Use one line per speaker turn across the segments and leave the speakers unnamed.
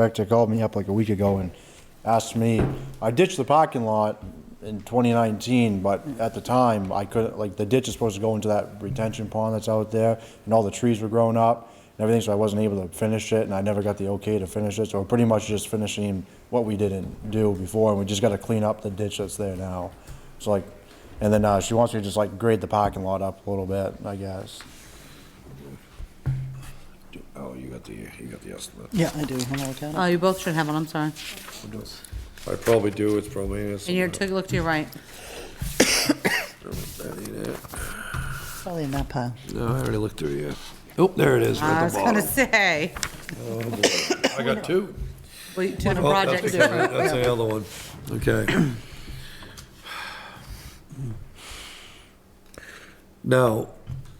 Director called me up like a week ago and asked me, I ditched the parking lot in 2019, but at the time, I couldn't, like, the ditch is supposed to go into that retention pond that's out there, and all the trees were growing up and everything, so I wasn't able to finish it, and I never got the okay to finish it, so we're pretty much just finishing what we didn't do before, and we just gotta clean up the ditch that's there now. So like, and then, uh, she wants me to just like grade the parking lot up a little bit, I guess.
Oh, you got the, you got the estimate.
Yeah, I do. I'm all counted.
Oh, you both should have one, I'm sorry.
I probably do, it's probably in
And you
estimate.
took, look to your right.
That ain't it.
Probably in that pile.
No, I already looked through you. Oh, there it is,
Ah, I
right at
was
the
gonna
bottom.
say,
I got two.
well, you- two different
Oh, that's
projects.
the- That's the other one, okay. Now,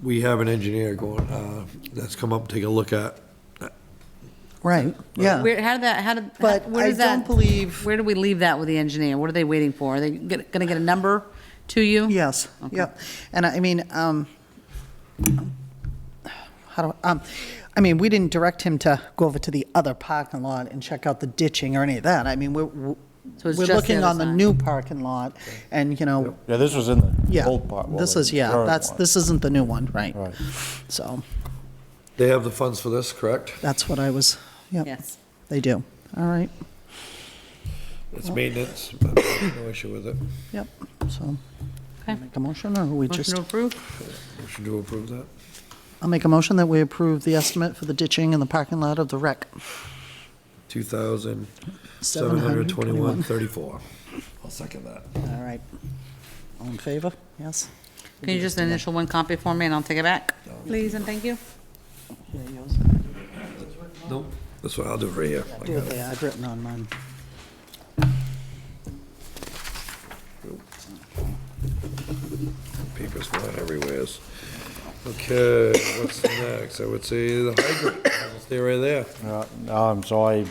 we have an engineer going, uh, that's come up, take a look at,
Right, yeah.
Where, how did that, how did, how-
But
where
I
does that?
don't believe-
Where do we leave that with the engineer? What are they waiting for? Are they get- gonna get a number to you?
Yes,
Okay.
yep. And I I mean, um, how do, um, I mean, we didn't direct him to go over to the other parking lot and check out the ditching or any of that. I mean, we're, we're
So it's just the
looking
other
on the
side.
new parking lot and, you know,
Yeah, this was in the
yeah.
old part. well,
This
the
is, yeah,
current
that's,
one.
this isn't the new one, right?
Right.
So
they have the funds for this, correct?
that's what I was, yep,
Yes.
they do. All right,
It's maintenance, but no issue with it.
yep, so.
Okay.
Make a motion or we just?
Motion to approve?
Motion to approve that?
I'll make a motion that we approve the estimate for the ditching in the parking lot of the rec.
Two thousand seven hundred twenty-one
721.
thirty-four. I'll second that.
All right. All in favor? Yes?
Can you just initial one copy for me and I'll take it back? Please and thank you.
Yeah, yours.
Nope. That's what I'll do right here. I
Do
got
it
it.
there, I've written on mine.
Papers flying everywhere. Okay, what's next? I would say the hydrant. I'll Stay right there.
Um, so I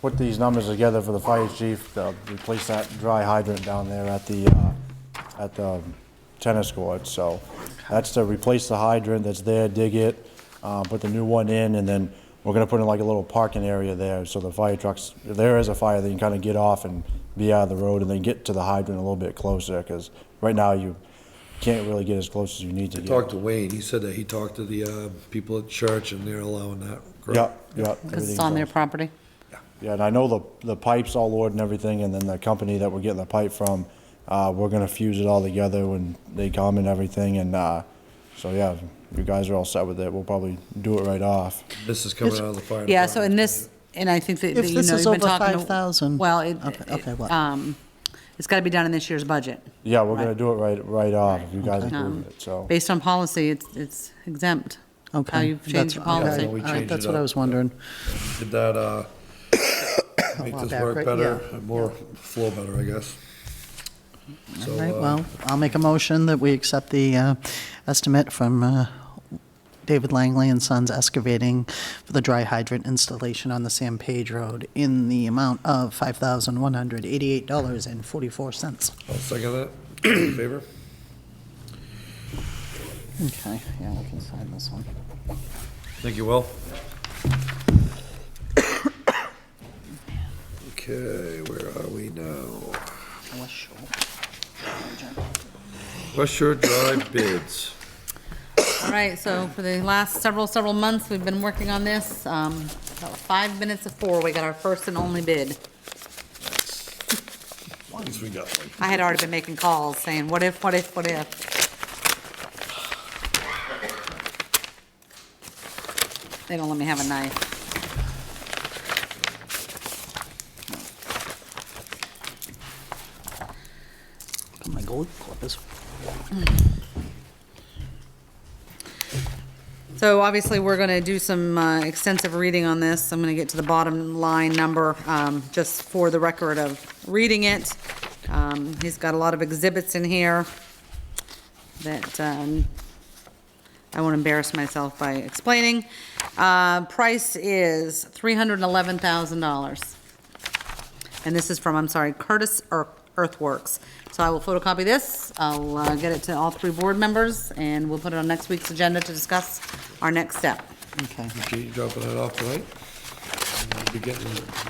put these numbers together for the fire chief, to replace that dry hydrant down there at the, uh, at the tennis court, so that's to replace the hydrant that's there, dig it, uh, put the new one in, and then we're gonna put in like a little parking area there, so the fire trucks, if there is a fire, they can kinda get off and be out of the road, and then get to the hydrant a little bit closer, cause right now you can't really get as close as you need to get.
Talked to Wayne. He said that he talked to the, uh, people at church and they're allowing that. correct?
Yep, yep.
Because
everything's
it's on
done.
their property.
Yeah, and I know the, the pipe's all ordered and everything, and then the company that we're getting the pipe from, uh, we're gonna fuse it all together when they come and everything, and, uh, so yeah, you guys are all set with it, we'll probably do it right off.
This is coming out of the fire.
Yeah, so in
department.
this, and I think that,
If
that, you know,
this
you've
is
been
over
talking to-
5,000,
Well, it,
okay, okay,
it-
what?
um, it's gotta be done in this year's budget.
Yeah, we're gonna do it right, right off, if you guys agree
Um,
with it, so.
Based on policy, it's, it's exempt.
Okay.
How you've
that's-
changed your
okay.
policy.
We
All right,
changed
that's
it
what I
up.
was wondering.
Did that, uh, make
Well,
this
back,
work
right,
better,
yeah.
and more flow better, I guess. So,
All right,
uh,
well, I'll make a motion that we accept the uh, estimate from uh, David Langley and Sons Excavating for the dry hydrant installation on the San Page Road in the amount of $5,188.44.
I'll second that. In Favor?
Okay, yeah, we can sign this one.
Thank you, Will. Okay, where are we now?
West Shore.
West Shore Drive bids.
All right, so for the last several, several months, we've been working on this. Um, About five minutes of four, we got our first and only bid.
At least we got one.
I had already been making calls saying, what if, what if, what if? They don't let me have a knife.
Got My gold clippers.
So obviously, we're going to do some uh, extensive reading on this. I'm going to get to the bottom line number, um, just for the record of reading it. Um, He's got a lot of exhibits in here that um, I won't embarrass myself by explaining. Uh, Price is $311,000. And this is from, I'm sorry, Curtis Ear- Earthworks. So I will photocopy this, I'll uh, get it to all three board members, and we'll put it on next week's agenda to discuss our next step.
Okay.
Okay, you dropping that off tonight? We'll be getting